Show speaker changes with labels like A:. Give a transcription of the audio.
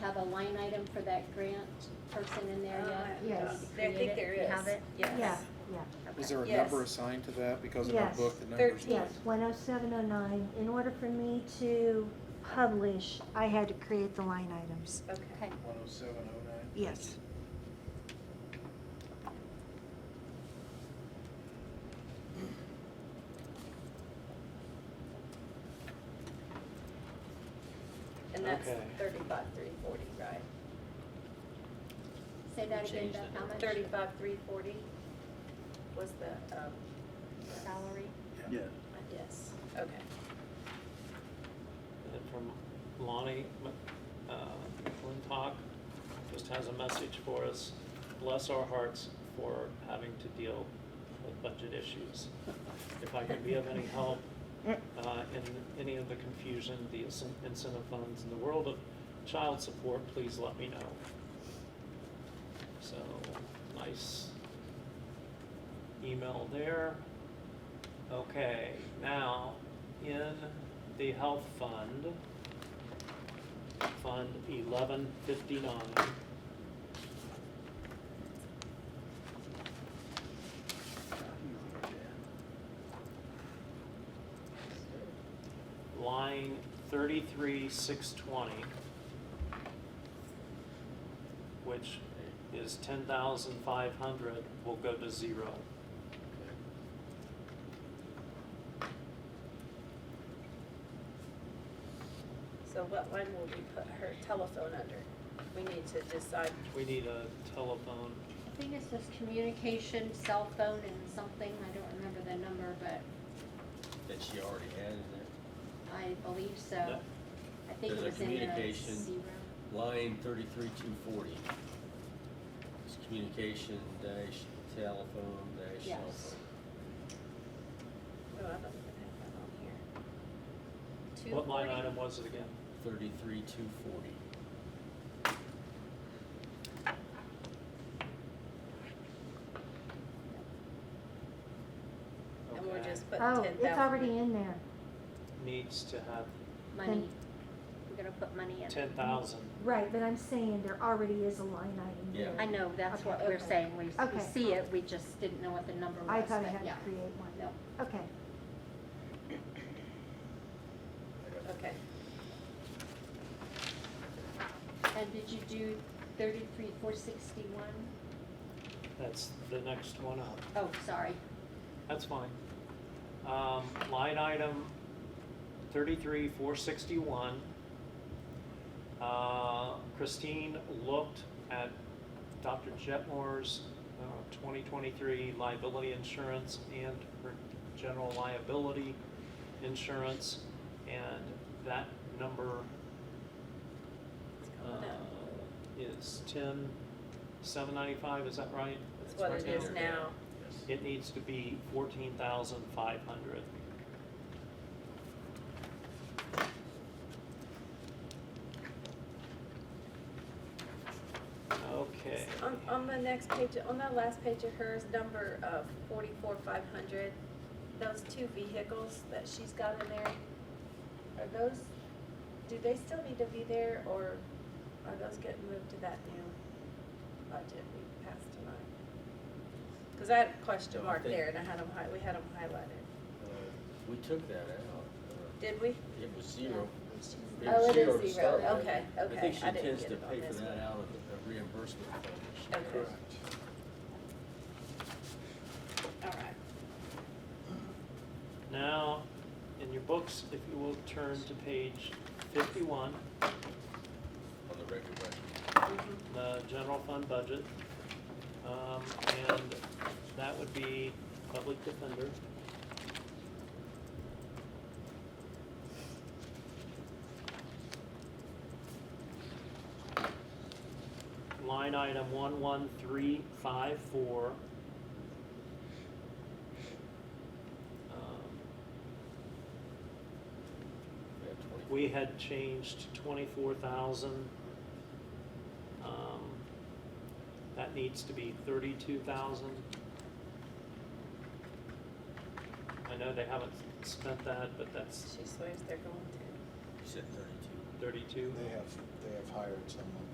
A: have a line item for that grant person in there yet?
B: Uh, Yes.
A: Did you
C: There, I think
A: create
C: there
A: it?
C: is.
A: You have it?
B: Yeah,
C: Yes.
B: yeah,
A: Okay.
D: Is there a
C: Yes.
D: number assigned to that? Because in our
B: Yes.
D: book, the number's.
C: Thirteen.
B: yes, one oh seven oh nine. In order for me to publish, I had to create the line items.
C: Okay.
A: Okay,
D: One oh seven oh nine.
B: Yes.
C: And that's
E: Okay.
C: thirty-five, three forty, right?
A: say that again,
E: Change
A: Beth,
E: that.
A: how much?
C: Thirty-five, three forty was the, um,
A: Salary?
F: Yeah,
C: yes, okay.
E: And from Lonnie Mc- uh, McClintock, just has a message for us. Bless our hearts for having to deal with budget issues. If I can be of any help uh, in any of the confusion, the incen- incentive funds, and the world of child support, please let me know. So, nice email there. Okay, now, in the health fund, Fund eleven fifty-nine. Line thirty-three six twenty, which is ten thousand five hundred, will go to zero.
C: So what line will we put her telephone under? We need to decide.
E: We need a telephone,
A: I think it's just communication, cell phone and something, I don't remember the number, but
G: that she already had in there.
A: I believe so.
E: Yeah.
A: I think it
G: There's a
A: was in the
G: communication.
A: zero.
G: Line thirty-three, two forty. It's communication dash telephone dash cell
A: Yes.
G: phone.
C: Oh, I don't even have that on here. Two
E: what line
C: forty?
E: item was it again?
G: Thirty-three, two forty.
C: And we're
E: Okay.
C: just putting ten
B: Oh,
C: thousand.
B: it's already in there.
E: Needs to have
A: Money, we're gonna put money in.
E: ten thousand.
B: Right, but I'm saying there already is a line item
G: Yeah.
B: there.
A: I know, that's what we're
C: Okay.
A: saying, we, we
B: Okay.
A: see it, we just didn't know what the number was,
B: I thought I
A: but
B: had to
A: yeah.
B: create one.
A: No.
B: Okay,
C: Okay,
A: And did you do thirty-three, four sixty-one?
E: That's the next one up.
A: Oh, sorry.
E: That's fine. Um, line item thirty-three, four sixty-one. Uh, Christine looked at Dr. Jetmore's, uh, twenty twenty-three liability insurance and her general liability insurance, and that number,
C: it's
E: uh,
C: coming up.
E: is ten, seven ninety-five, is that right?
C: That's what it is now.
E: It needs to be fourteen thousand five hundred. Okay.
C: On, on the next page, on that last page of hers, number of forty-four, five hundred, those two vehicles that she's got in there, are those, do they still need to be there, or are those getting moved to that new budget we passed tonight? Cause I had a question
G: No, I
C: mark
G: think-
C: there, and I had them hi, we had them highlighted,
G: Uh, We took that out.
C: did we?
G: Uh, It was zero. It
C: Oh, it
G: was
C: is zero.
G: to start with.
C: Okay, okay.
G: I think she
C: I didn't
G: intends
C: get
G: to
C: it on
G: pay for
C: this one.
G: that out of the uh, reimbursement fund. that she
C: Okay.
G: has.
C: Alright.
E: Now, in your books, if you will turn to page fifty-one,
G: On the record, right.
E: the general fund budget. Um, and that would be public defender. Line item one one three five four. Um,
G: We have 20.
E: we had changed twenty-four thousand. Um, That needs to be thirty-two thousand. I know they haven't spent that, but that's,
C: She swears they're going to.
G: You said thirty-two.
E: thirty-two?
D: They have, they have hired someone.